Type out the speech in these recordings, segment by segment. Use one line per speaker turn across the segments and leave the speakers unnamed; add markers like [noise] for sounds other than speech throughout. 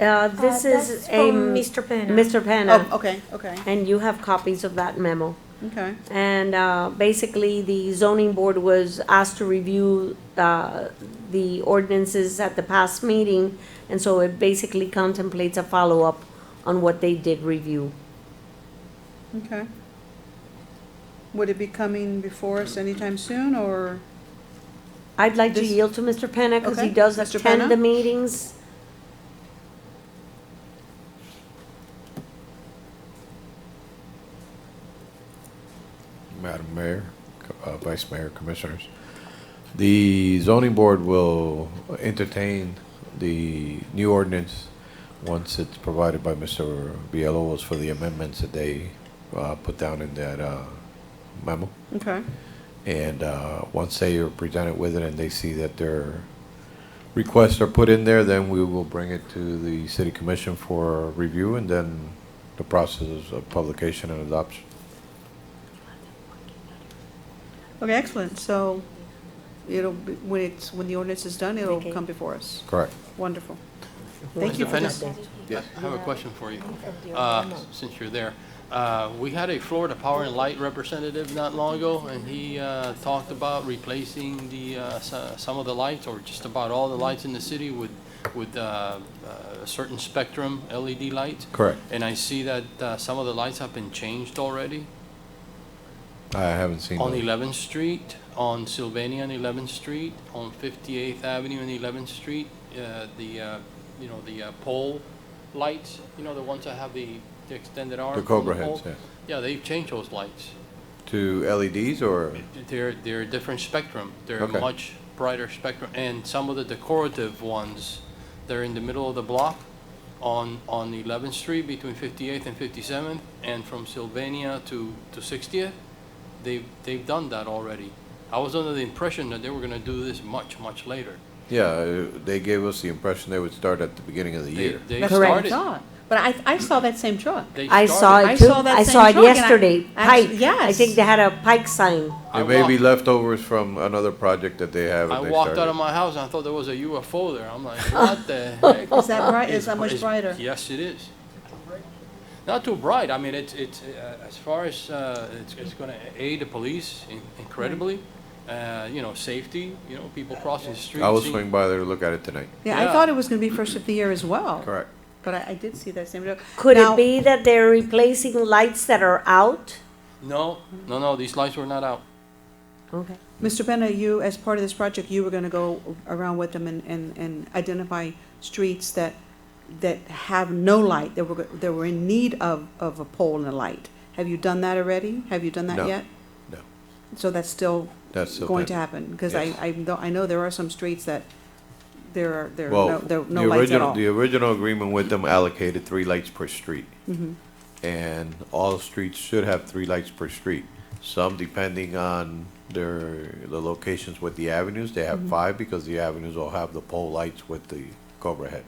Uh, this
Uh,
is
that's
a.
from Mr. Penna.
Mr. Penna.
Oh, okay, okay,
And you have copies of that memo.
okay.
And uh, basically, the zoning board was asked to review uh, the ordinances at the past meeting, and so it basically contemplates a follow-up on what they did review.
Okay. Would it be coming before us anytime soon, or?
I'd like to
This-
yield to Mr. Penna, because he
Okay,
does
Mr.
attend
Penna?
the meetings.
Madam Mayor, Co- uh, Vice Mayor, Commissioners. The zoning board will entertain the new ordinance once it's provided by Mr. Villalobos for the amendments that they uh, put down in that uh, memo.
Okay,
And uh, once they are presented with it and they see that their requests are put in there, then we will bring it to the city commission for review and then the process of publication and adoption.
okay, excellent, so it'll, be when it's, when the ordinance is done, it'll
Okay.
come before us.
Correct.
Wonderful. Thank you for
Fenner?
that.
I have a question for you, uh, since you're there. Uh, We had a Florida Power and Light representative not long ago, and he uh, talked about replacing the, uh, so- some of the lights, or just about all the lights in the city with, with uh, uh, a certain spectrum LED lights.
Correct.
And I see that uh, some of the lights have been changed already
I haven't seen.
on
those.
11th Street, on Sylvania and 11th Street, on 58th Avenue and 11th Street, uh, the, uh, you know, the uh, pole lights, you know, the ones that have the the extended arm.
The
from
Cobra
pole?
heads, yeah.
Yeah, they've changed those lights.
To LEDs or,
They're, they're a different spectrum. They're a
Okay.
much brighter spectrum. And some of the decorative ones, they're in the middle of the block on, on 11th Street between 58th and 57th, and from Sylvania to, to 60th. They've, they've done that already. I was under the impression that they were gonna do this much, much later.
yeah, uh, they gave us the impression they would start at the beginning of the
They-
year.
They
That's what I
started.
thought. But I, I saw that same truck.
They
I saw
started.
it
I
too.
saw that
I
same
saw it
truck and I-
yesterday.
actu-
Pike. I
yes.
think they had a Pike sign.
I
It may be
walked-
leftovers from another project that they have
I
and they
walked out of
started.
my house and I thought there was a UFO there.
[laughs]
I'm like, what the heck?
Is that bright, is that
It's-
much brighter?
Yes, it is. Not too bright, I mean, it's, it's, uh, as far as, uh, it's, it's gonna aid the police in- incredibly, uh, you know, safety, you know, people crossing the street.
I will
seeing-
swing by there to look at it tonight.
Yeah, I
Yeah.
thought it was gonna be first of the year as well.
Correct.
But I, I did see that same truck.
Could
Now-
it be that they're replacing lights that are out?
No, no, no, these lights were not out.
Okay.
Mr. Penna, you, as part of this project, you were gonna go around with them and, and, and identify streets that, that have no light, that were, that were in need of, of a pole and a light. Have you done that already? Have you done that
No,
yet?
no.
So that's still
That's still
going to
pending.
happen? Because I,
Yes.
I, know- I know there are some streets that there are, there are no,
Well,
there are
the
no lights at
original,
all.
the original agreement with them allocated three lights per street.
Mm-hmm.
And all streets should have three lights per street. Some depending on their, the locations with the avenues, they
Mm-hmm.
have five because the avenues all have the pole lights with the cobra head.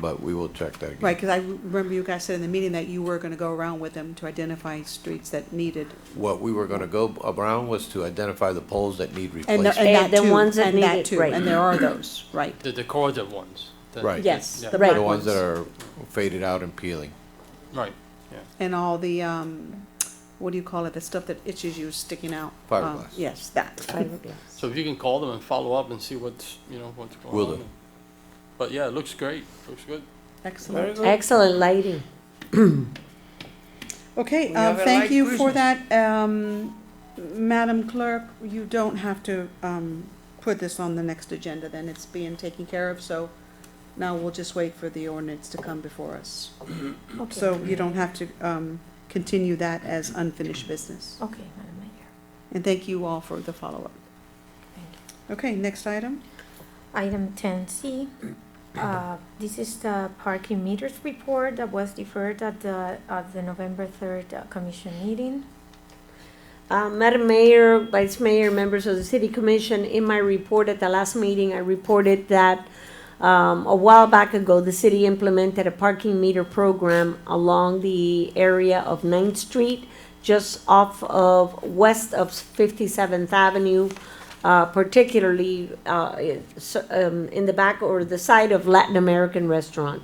But we will check that again.
Right, because I remember you guys said in the meeting that you were gonna go around with them to identify streets that needed,
What we were gonna go around was to identify the poles that
and,
need
the-
replacement.
Eh,
and that
the
too,
ones that
and that
needed,
too,
right.
and there are those, right.
The decorative ones. the-
Right.
Yes,
yeah,
the right
The ones
ones.
that are faded out and peeling.
Right,
and all the, um, what do you call it, the stuff that itches you sticking out? Um,
Fiberglass.
Yes, that.
so if you can call them and follow up and see what's, you know, what's going on.
Will do.
But yeah, it looks great, looks good.
Excellent.
Excellent lighting.
Okay,
We
um,
have a
thank
light
you for that. Um, Madam Clerk, you don't have to, um, put this on the next agenda then. It's being taken care of, so now we'll just wait for the ordinance to come before us. So you don't have to, um, continue that as unfinished business.
Okay, Madam Mayor.
And thank you all for the follow-up.
Thank you.
Okay, next item?
Item ten C, uh, this is the parking meters report that was deferred at the, at the November third uh, commission meeting.
Uh, Madam Mayor, Vice Mayor, members of the City Commission, in my report at the last meeting, I reported that um, a while back ago, the city implemented a parking meter program along the area of 9th Street, just off of, west of 57th Avenue, uh, particularly uh, it's, um, in the back or the side of Latin American Restaurant.